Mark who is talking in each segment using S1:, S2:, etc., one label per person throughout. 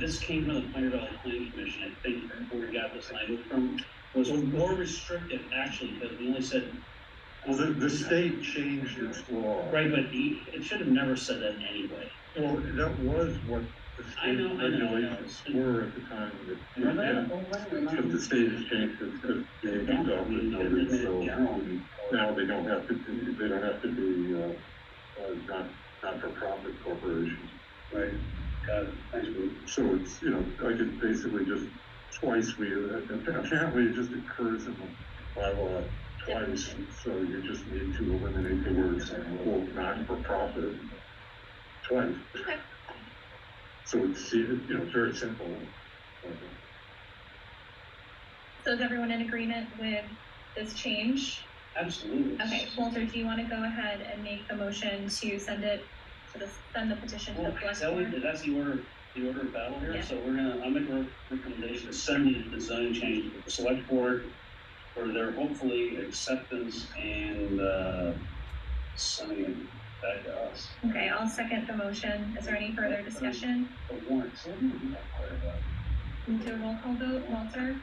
S1: This came from the Pioneer Valley Planning Commission, I think, where we got this language from, was more restrictive, actually, because we only said.
S2: Well, the, the state changed its law.
S1: Right, but he, it should have never said that anyway.
S2: Well, that was what the
S1: I
S2: state
S1: know, I know, I know.
S2: regulations were at the time of it.
S1: Remember that? Oh,
S2: Because the state has changed it, because they
S1: Yeah.
S2: adopted it, so now they don't have to, do- they don't have to be, uh, uh, not, not-for-profit corporations.
S3: Right, got it, thanks, Bruce.
S2: So it's, you know, I could basically just twice we, apparently it just occurs in the bylaw twice. So you just need to eliminate the words, quote, non-for-profit twice.
S4: Okay.
S2: So it's, you know, very simple.
S4: So is everyone in agreement with this change?
S1: Absolutely.
S4: Okay, Walter, do you want to go ahead and make the motion to send it, to the, send the petition to
S1: Well,
S4: the
S1: that's
S4: select
S1: how
S4: board?
S1: we- that's the order, the order of battle
S4: Yeah.
S1: here, so we're gonna, I'll make a recommendation to send the design change to the select board for their hopefully acceptance and, uh, sending it back to us.
S4: Okay, I'll second the motion. Is there any further discussion?
S1: The warrant, so we don't have to worry about it.
S4: Move to a roll call vote. Walter,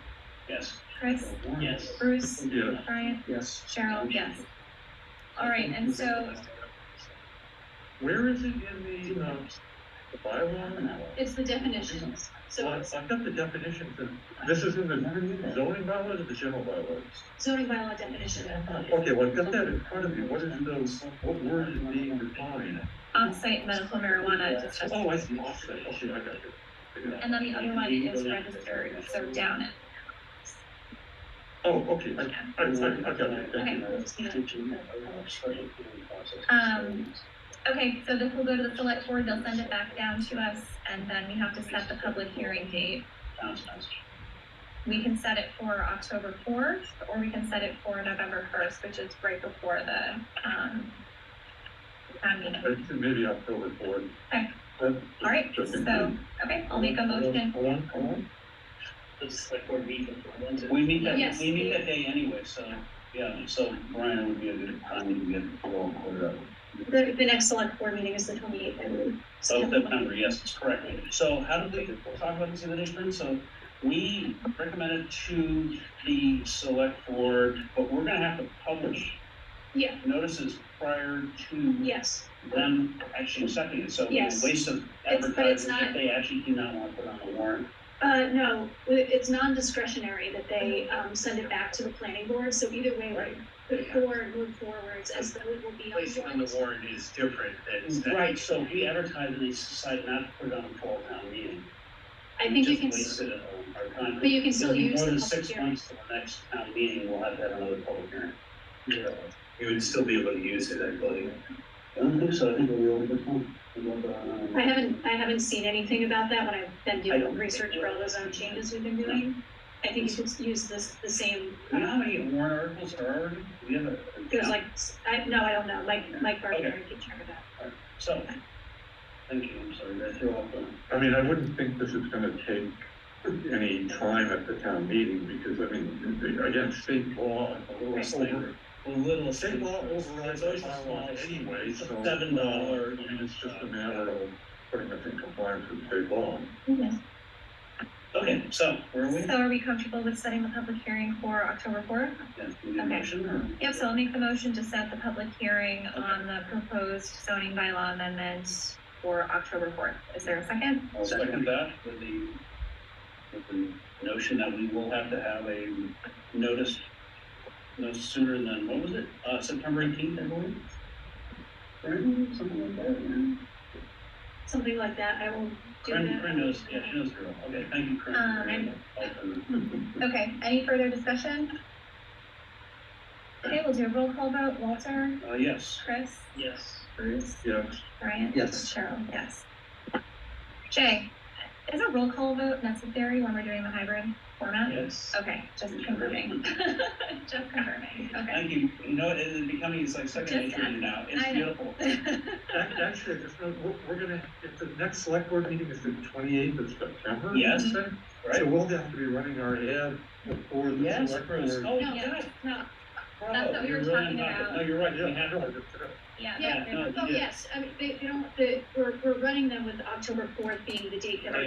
S1: Yes.
S4: Chris,
S1: Yes.
S4: Bruce,
S2: Yeah.
S4: Brian,
S3: Yes.
S4: Cheryl, yes. All right, and so
S2: Where is it in the, uh, the bylaw?
S5: It's the definitions,
S2: Well,
S5: so
S2: I've I've got the definitions, and this is in the zoning bylaws or the general bylaws?
S5: zoning bylaw definition.
S4: Oh,
S2: Okay, well, I've got that in front of me, what is those, what word is being defined?
S4: on-site medical marijuana dispensaries.
S2: Oh, I see, offset, okay, I got it. I got it.
S4: And then the other one is registered, so down it.
S2: Oh, okay, I,
S4: Yeah.
S2: I, I I got it, thank you.
S4: Um, Okay, so this will go to the select board. They'll send it back down to us and then we have to set the public hearing date.
S1: Sounds nice.
S4: We can set it for October fourth, or we can set it for November first, which is right before the, um, town meeting.
S2: I think Maybe October fourth.
S4: Okay.
S2: Uh,
S4: All right, so, okay, I'll make a motion.
S2: Hold on, hold on.
S1: We meet that,
S5: Yes.
S1: we meet that day anyway, so, yeah, so Brian would be a good time to get it all cleared up.
S5: The, the next select board meeting is the twenty-eighth, I
S1: Oh,
S5: believe.
S1: Of September, yes, that's correct. So how did we talk about this in the next room? So we recommended to the select board, but we're gonna have to publish
S5: Yeah,
S1: notices prior to
S5: yes,
S1: them actually accepting it. So it's
S5: Yes.
S1: a waste of
S5: It's- but it's
S1: advertising if
S5: not-
S1: they actually do not want to put on the warrant.
S5: uh, no, it- it's non-discretionary that they, um, send it back to the planning board, so either way, the board move forwards as though it will be on
S6: placing on the warrant is different than. than-
S1: Right, so if we advertise and they decide not to put it on a fall town meeting.
S5: I
S1: we
S5: think you
S1: just
S5: can, s-
S1: wasted our- our time.
S5: but you can still
S1: It'll be
S5: use
S1: More
S5: the
S1: than
S5: public
S1: six
S5: hearing.
S1: months to the next town meeting, we'll have to have another public hearing.
S6: You would still be able to use it, I believe.
S1: I don't think so, I think it'll be over the time. We'll go, um,
S5: I haven't, I haven't seen anything about that when I've been
S1: I
S5: doing
S1: don't-
S5: research for all those other changes we've been doing. I think you could use this, the same, uh,
S1: You know how many warrant articles are already, we have a.
S5: there's like, s- I, no, I don't know, Mike, Mike Barker,
S1: Okay.
S5: I keep track of that.
S1: So, thank you, I'm sorry, did I threw off the.
S2: I mean, I wouldn't think this is gonna take any time at the town meeting, because, I mean, the- again, state law, over,
S1: A little.
S2: state law overrides our bylaw anyway, so.
S1: Seven dollar.
S2: I mean, it's just a matter of putting us in compliance with state law.
S1: Okay, so, where are we?
S4: So are we comfortable with setting the public hearing for October fourth?
S1: Yeah, we need a
S4: Okay.
S1: motion or?
S4: Yep, so I'll make the motion to set the public hearing on the proposed zoning bylaw amendment for October fourth. Is there a second?
S1: I'll second that with the, with the notion that we will have to have a notice no sooner than, what was it, uh, September eighteenth, I believe? Right, something like that, yeah.
S5: Something like that, I will do
S1: Corinne,
S5: that.
S1: Corinne knows, yeah, she knows the girl, okay, thank you, Corinne.
S4: Um,
S1: I'll turn
S4: Okay, any further discussion? Okay, we'll do a roll call vote. Walter,
S1: it. Uh, yes.
S4: Chris,
S1: Yes.
S4: Bruce,
S2: Yeah,
S4: Brian?
S3: Yes.
S4: Cheryl, yes. Jay, is a roll call vote necessary when we're doing the hybrid format?
S1: Yes.
S4: Okay, just confirming. Just confirming, okay.
S1: Thank you, you know, it is becoming, it's like second
S4: Just
S1: nature to me now, it's
S4: I know.
S1: beautiful.
S2: Ac- Actually, I just know, we're, we're gonna, if the next select board meeting is the twenty-eighth of September.
S1: Yes.
S2: you said? So
S1: Right?
S2: we'll have to be running our ad before the
S1: Yes,
S2: select
S1: Bruce,
S2: board.
S1: oh,
S4: No,
S1: yes,
S5: No,
S1: bravo,
S4: what we
S1: you're
S4: were
S1: really
S4: talking
S1: on it.
S4: about.
S1: No, you're right, we
S2: Yeah,
S1: have to.
S4: Yeah.
S5: yeah,
S1: no,
S5: oh,
S1: yeah.
S5: yes, I mean, they, they don't, the, we're, we're running them with October fourth being the date that our